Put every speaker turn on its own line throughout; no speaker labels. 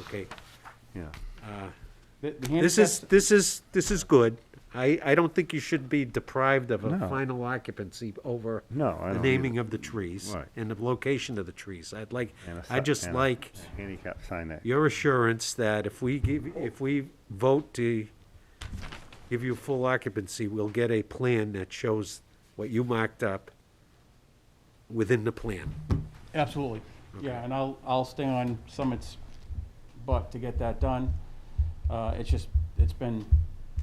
okay.
yeah.
uh,
The- the
This
handicap-
is, this is, this is good. I, I don't think you should be deprived of a
No.
final occupancy over
No, I
the
don't
naming
either.
of the trees
Right.
and the location of the trees. I'd like,
and a
I
si-
just
and a
like
Handicap sign that,
your assurance that if we give, if we vote to give you full occupancy, we'll get a plan that shows what you marked up within the plan.
Absolutely, yeah, and I'll, I'll stay on Summit's butt to get that done. Uh, it's just, it's been,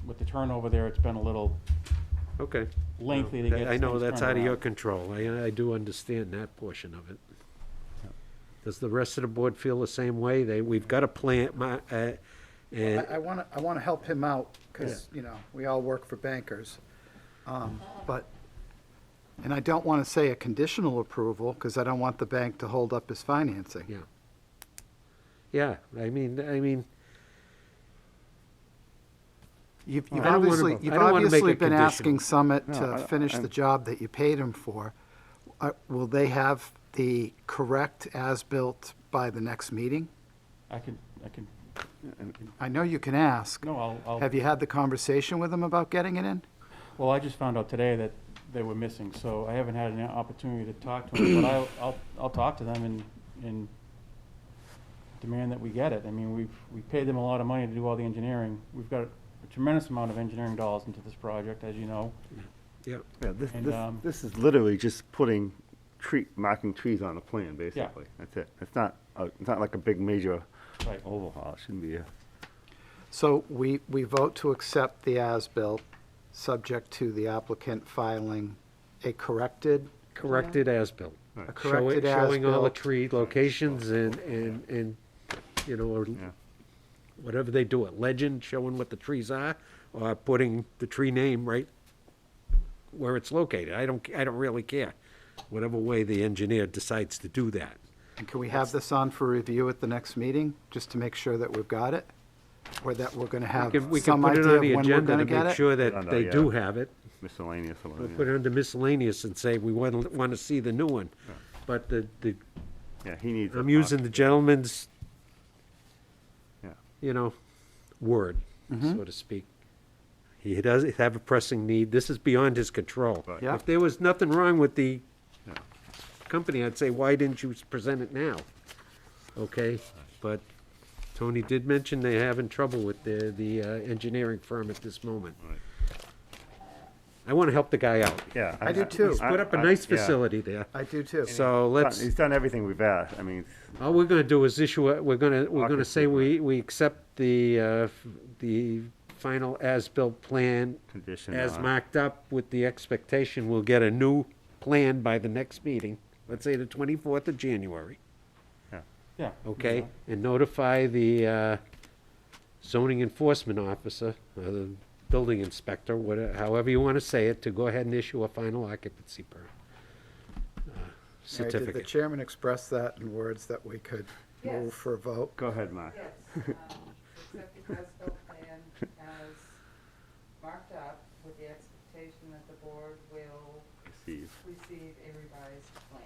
with the turnover there, it's been a little,
Okay.
Lengthy to
Well,
get
I know
things
that's
turned
out of your
around.
control. I, I do understand that portion of it. Does the rest of the board feel the same way? They, we've got a plan, my, uh, and,
I want to, I want to help him out, because, you know, we all work for bankers. Um, But, and I don't want to say a conditional approval, because I don't want the bank to hold up his financing.
yeah. Yeah, I mean, I mean,
You've you've
I don't wanna-
obviously,
I
you've
don't wanna make
obviously
it
been asking
conditional.
Summit
No, I-
to finish the
I'm-
job that you paid him for. Uh, Will they have the correct as-built by the next meeting?
I can, I can,
I know you can ask.
no, I'll, I'll,
Have you had the conversation with them about getting it in?
well, I just found out today that they were missing, so I haven't had an opportunity to talk to them, but I'll, I'll, I'll talk to them and, and demand that we get it. I mean, we've, we paid them a lot of money to do all the engineering. We've got a tremendous amount of engineering dollars into this project, as you know.
yeah,
yeah, this,
And,
this,
um,
this is literally just putting tree, marking trees on a plan, basically, that's it. It's not, a- it's not like a big major
Right.
overhaul, it shouldn't be a.
So we, we vote to accept the as-built, subject to the applicant filing a corrected,
corrected as-built.
a
Show it-
corrected
Showing all the
as-built.
tree locations and, and, and, you know, or
Yeah.
whatever they do, a legend showing what the trees are, or putting the tree name right where it's located. I don't, I don't really care, whatever way the engineer decides to do that.
And can we have this on for review at the next meeting, just to make sure that we've got it? Or that we're gonna
We
have
can, we can
some
put it
idea
on
of
the
when we're
agenda
gonna
to
get
make
it?
sure
I
that
know,
they
yeah.
do have it.
miscellaneous or
We'll
whatever.
put it under miscellaneous and say, we want, want to see the new one. But the, the,
Yeah, he needs. a
I'm
box.
using the gentleman's,
Yeah.
you know, word,
Mm-hmm.
so to speak. He does have a pressing need. This is beyond his control.
Right.
Yeah.
If there was nothing wrong with the
Yeah.
company, I'd say, why didn't you present it now? Okay, but Tony did mention they're having trouble with the, the uh, engineering firm at this moment.
Right.
I want to help the guy out.
Yeah.
I do too.
He's put up a
I-
nice
yeah.
facility there.
I do too.
So
Done-
let's,
He's done everything we've asked, I mean, it's-
all we're gonna do is issue, a- we're gonna, we're gonna say we, we accept the, uh, f- the final as-built plan
Condition uh,
as
on-
marked up with the expectation we'll get a new plan by the next meeting, let's say the twenty-fourth of January,
Yeah.
okay? And notify the, uh, zoning enforcement officer, or the building inspector, whatever, however you wanna say it, to go ahead and issue a final occupancy permit. uh,
Mary, Did the
Certificate.
chairman express that in words that we could move for a vote?
go ahead, Mark.
Yes, um, accept the as-built plan as marked up with the expectation that the board will
Receive.
receive a revised plan.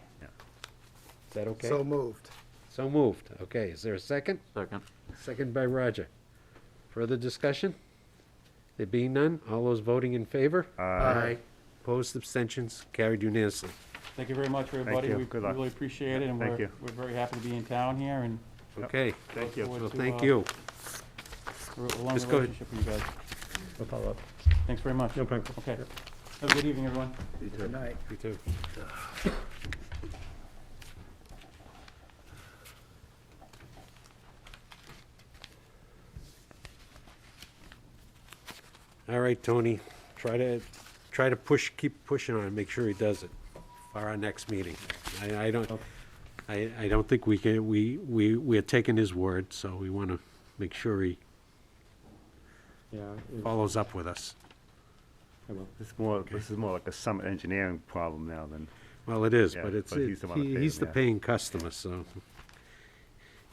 Is that okay?
So moved.
So moved. Okay, is there a second?
Second.
Second by Roger. Further discussion? There being none, all those voting in favor?
Aye.
Opposed, abstentions, carried unanimously.
Thank you very much, everybody.
you.
We
Good luck.
really appreciate it, and
Thank
we're,
you.
we're very happy to be in town here, and
Yep.
Okay,
Thank you.
Forward
well,
to,
thank
uh,
you.
we're a long
Just go ahead.
relationship with you guys.
I'll follow up.
Thanks very much.
No problem.
Okay. Have a good evening, everyone.
Good night.
You too. All right, Tony, try to, try to push, keep pushing on, it. make sure he does it for our next meeting. I, I don't, I, I don't think we can, we, we, we're taking his word, so we want to make sure he
Yeah,
follows up with us.
This is more, this is more like a summit engineering problem now than,
Well, it is,
Yeah,
but it's,
but
it-
he's the one that
he-
paid
he's
him,
the
yeah.
paying customer, so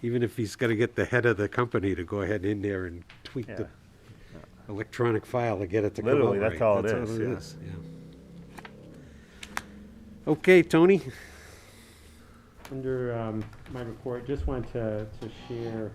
even if he's gotta get the head of the company to go ahead in there and tweak
Yeah.
the electronic file to get it to come out
Literally, that's
right,
all it
that's
is,
all it
yeah.
is, yeah. Okay, Tony,
Under um, my report, just wanted to, to share